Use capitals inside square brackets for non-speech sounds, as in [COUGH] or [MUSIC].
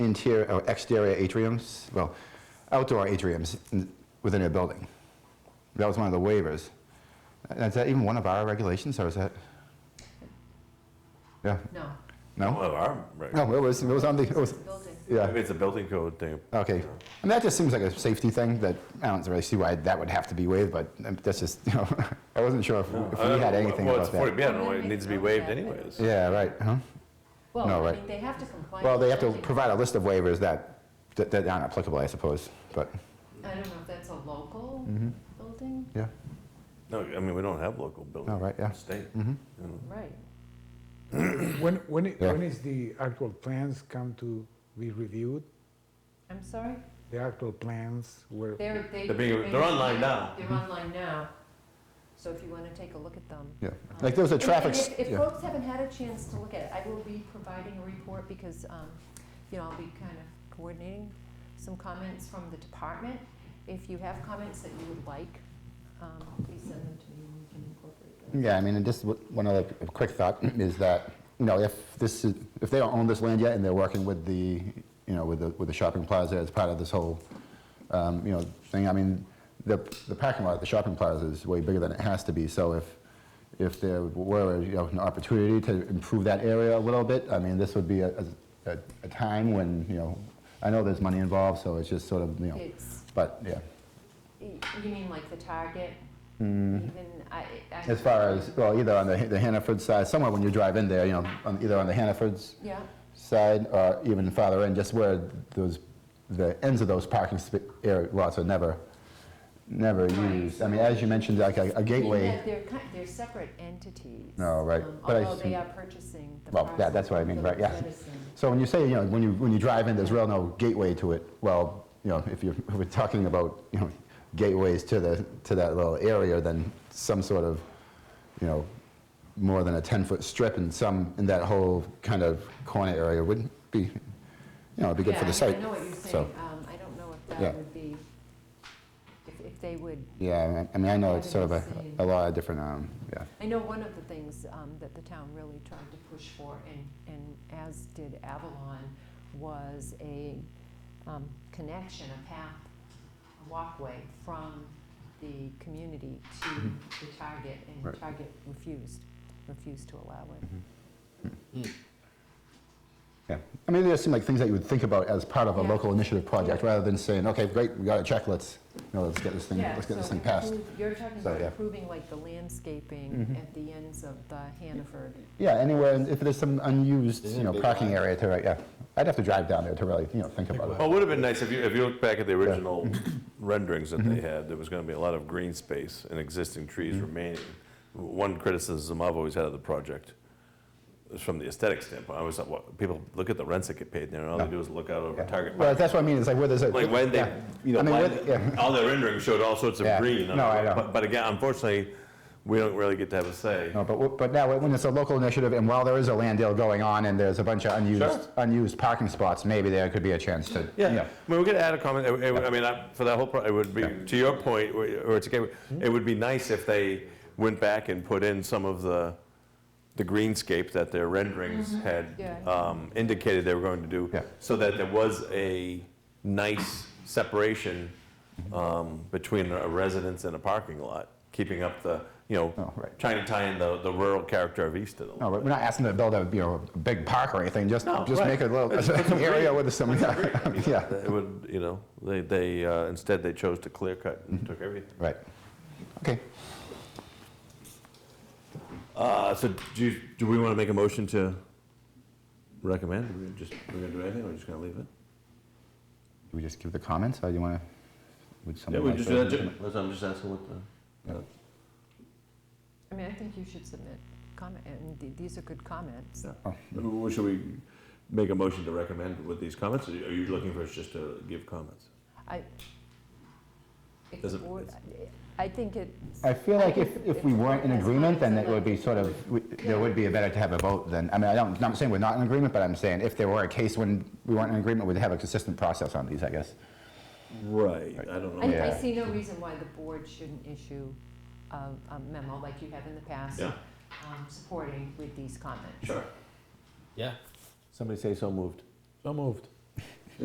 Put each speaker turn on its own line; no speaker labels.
interior, or exterior atriums, well, outdoor atriums in- within a building. That was one of the waivers. Uh, Is that even one of our regulations, or is that? Yeah,
No,
no?
Well, I'm, right.
No, it was, it was on the, it was,
building.
yeah,
Maybe it's a building code thing.
okay. And that just seems like a safety thing that, I don't really see why that would have to be waived, but um, that's just, [LAUGHS] you know, I wasn't sure if if
I
we
don't
had
know,
anything
well, it's
about that.
40B, I don't know, it needs to be waived anyways.
Yeah, right, huh? No,
Well, I
right.
mean, they have to comply.
Well,
with
they have to
something.
provide a list of waivers that, that that aren't applicable, I suppose, but,
I don't know if that's a local building,
yeah.
No, I mean, we don't have local buildings.
Oh, right, yeah.
State.
right?
When, when, i-
Yeah.
when is the actual plans come to be reviewed?
I'm sorry?
The actual plans were,
They're, they.
They're being-
they-
they're online now.
They're online now, so if you want to take a look at them.
Yeah, like there was a
And-
traffic,
and
s-
if- If
yeah,
folks haven't had a chance to look at it, I will be providing a report because, um, you know, I'll be kind of coordinating some comments from the department. If you have comments that you would like, um, please send them to me and we can incorporate them.
yeah, I mean, and just w- one other quick thought [CLEARS THROAT] is that, you know, if this is, if they don't own this land yet and they're working with the, you know, with the, with the shopping plaza as part of this whole, um, you know, thing, I mean, the, the parking lot at the shopping plaza is way bigger than it has to be, so if, if there were, you know, an opportunity to improve that area a little bit, I mean, this would be a, a, a time when, you know, I know there's money involved, so it's just sort of, you know,
It's,
but, yeah.
y- you mean like the target? Even, I. I-
Mm-hmm. As far as, well, either on the the Hannaford side, somewhere when you drive in there, you know, on- either on the Hannaford's
Yeah,
side or even farther in, just where those, the ends of those parking sp- area lots are never, never
Right.
used. I mean, as you mentioned, like a a
In
gateway,
that They're kind, they're separate entities.
No, right,
um,
but I
Although they
see.
are purchasing the
Well,
parcel.
yeah, that's what I mean, right, yeah.
Medicine.
so when you say, you know, when you, when you drive in, there's real no gateway to it, well, you know, if you're, if we're talking about, you know, gateways to the, to that little area, then some sort of, you know, more than a 10-foot strip in some, in that whole kind of corner area wouldn't be, you know, it'd be good for the
Yeah, I-
site.
I know what you're
so.
saying. Um, I don't know if
Yeah.
that would be, if, if they would,
Yeah, I mean- I mean, I know it's sort of a,
Having the
a lot of different, um, yeah.
I know one of the things um, that the town really tried to push for, and, and as did Avalon, was a um, connection, a path, a walkway from the community to the Target, and
Mm-hmm. Right.
Target refused, refused to allow it.
Yeah, I mean, there seem like things that you would think about as part of a
Yeah.
local initiative project, rather than saying, okay, great, we got a check, let's, you know, let's get this thing,
Yeah,
let's get this
so
thing passed.
improve- You're talking
So,
about
yeah. Mm-hmm.
improving like the landscaping at the ends of the Hannaford.
Yeah, anywhere, and if there's some unused,
Isn't
you
it
know,
big
parking
lot?
area to, right, yeah. I'd have to drive down there to really, you know, think about
Well,
it.
it would have been nice if you, if you look back at
[COUGHS]
the original renderings that
Mm-hmm.
they had, there was going to be a lot of green space and existing trees remaining. One criticism I've always had of the project is from the aesthetic standpoint. I always thought, well, people look at the rents that get paid there, and all they do is look out over
Yeah.
Target
Well,
Park.
that's what I mean, it's like where there's a.
Like when they,
yeah.
you know,
I mean,
when-
with- yeah. [LAUGHS]
all their renderings showed all sorts of
Yeah.
green.
No, I know.
But- But again, unfortunately, we don't really get to have a say.
No, but, w- but now, when it's a local initiative, and while there is a land deal going on, and there's a bunch of
Sure.
unused, unused parking spots, maybe there could be a chance to, you
Yeah,
know.
I mean, we could add a comment, I- I I mean, I- for that whole, pro- it would be, to your point, or or it's, okay, it would be nice if they went back and put in some of the, the greenscape that their renderings had
Yeah.
um, indicated they were going to do.
Yeah.
So that there was a nice separation um, between a residence and a parking lot, keeping up the, you
Oh,
know,
right.
trying to tie in the, the rural character of Easton a
No,
little.
we're not asking to build a, you know, a big park or anything, just,
No,
just
right.
make a little
It's- it's a
[LAUGHS] area
green-
with some, yeah, Oh, [LAUGHS] yeah,
It would, you know, they, they, uh, instead they chose to clear cut
Mm-hmm.
and took everything.
right. Okay,
Uh, so do, you- do we want to make a motion to recommend? Are we just, we're gonna do anything, or we're just gonna leave it?
do we just give the comments, or do you want to, would
Yeah,
someone
we
like
just
to?
do that, Jim. That's, I'm just asking what the.
I mean, I think you should submit comment, and th- these are good comments.
Oh.
Well, Should we make a motion to recommend with these comments, or are you looking for us just to give comments?
I, if
Does
the
it-
board, I I think it,
I feel like if, if we weren't in
That's fine,
agreement, then
it's
it would be
allowed.
sort of, we- there would be a better to have a vote then. I mean, I don't, I'm saying we're not in agreement, but I'm saying if there were a case when we weren't in agreement, we'd have a consistent process on these, I guess.
Right, I don't
I, I
Yeah.
see no reason why the board shouldn't issue a a memo like you have in the past,
Yeah.
um, supporting with these comments.
Sure.
Yeah.
Somebody say so moved.
So moved.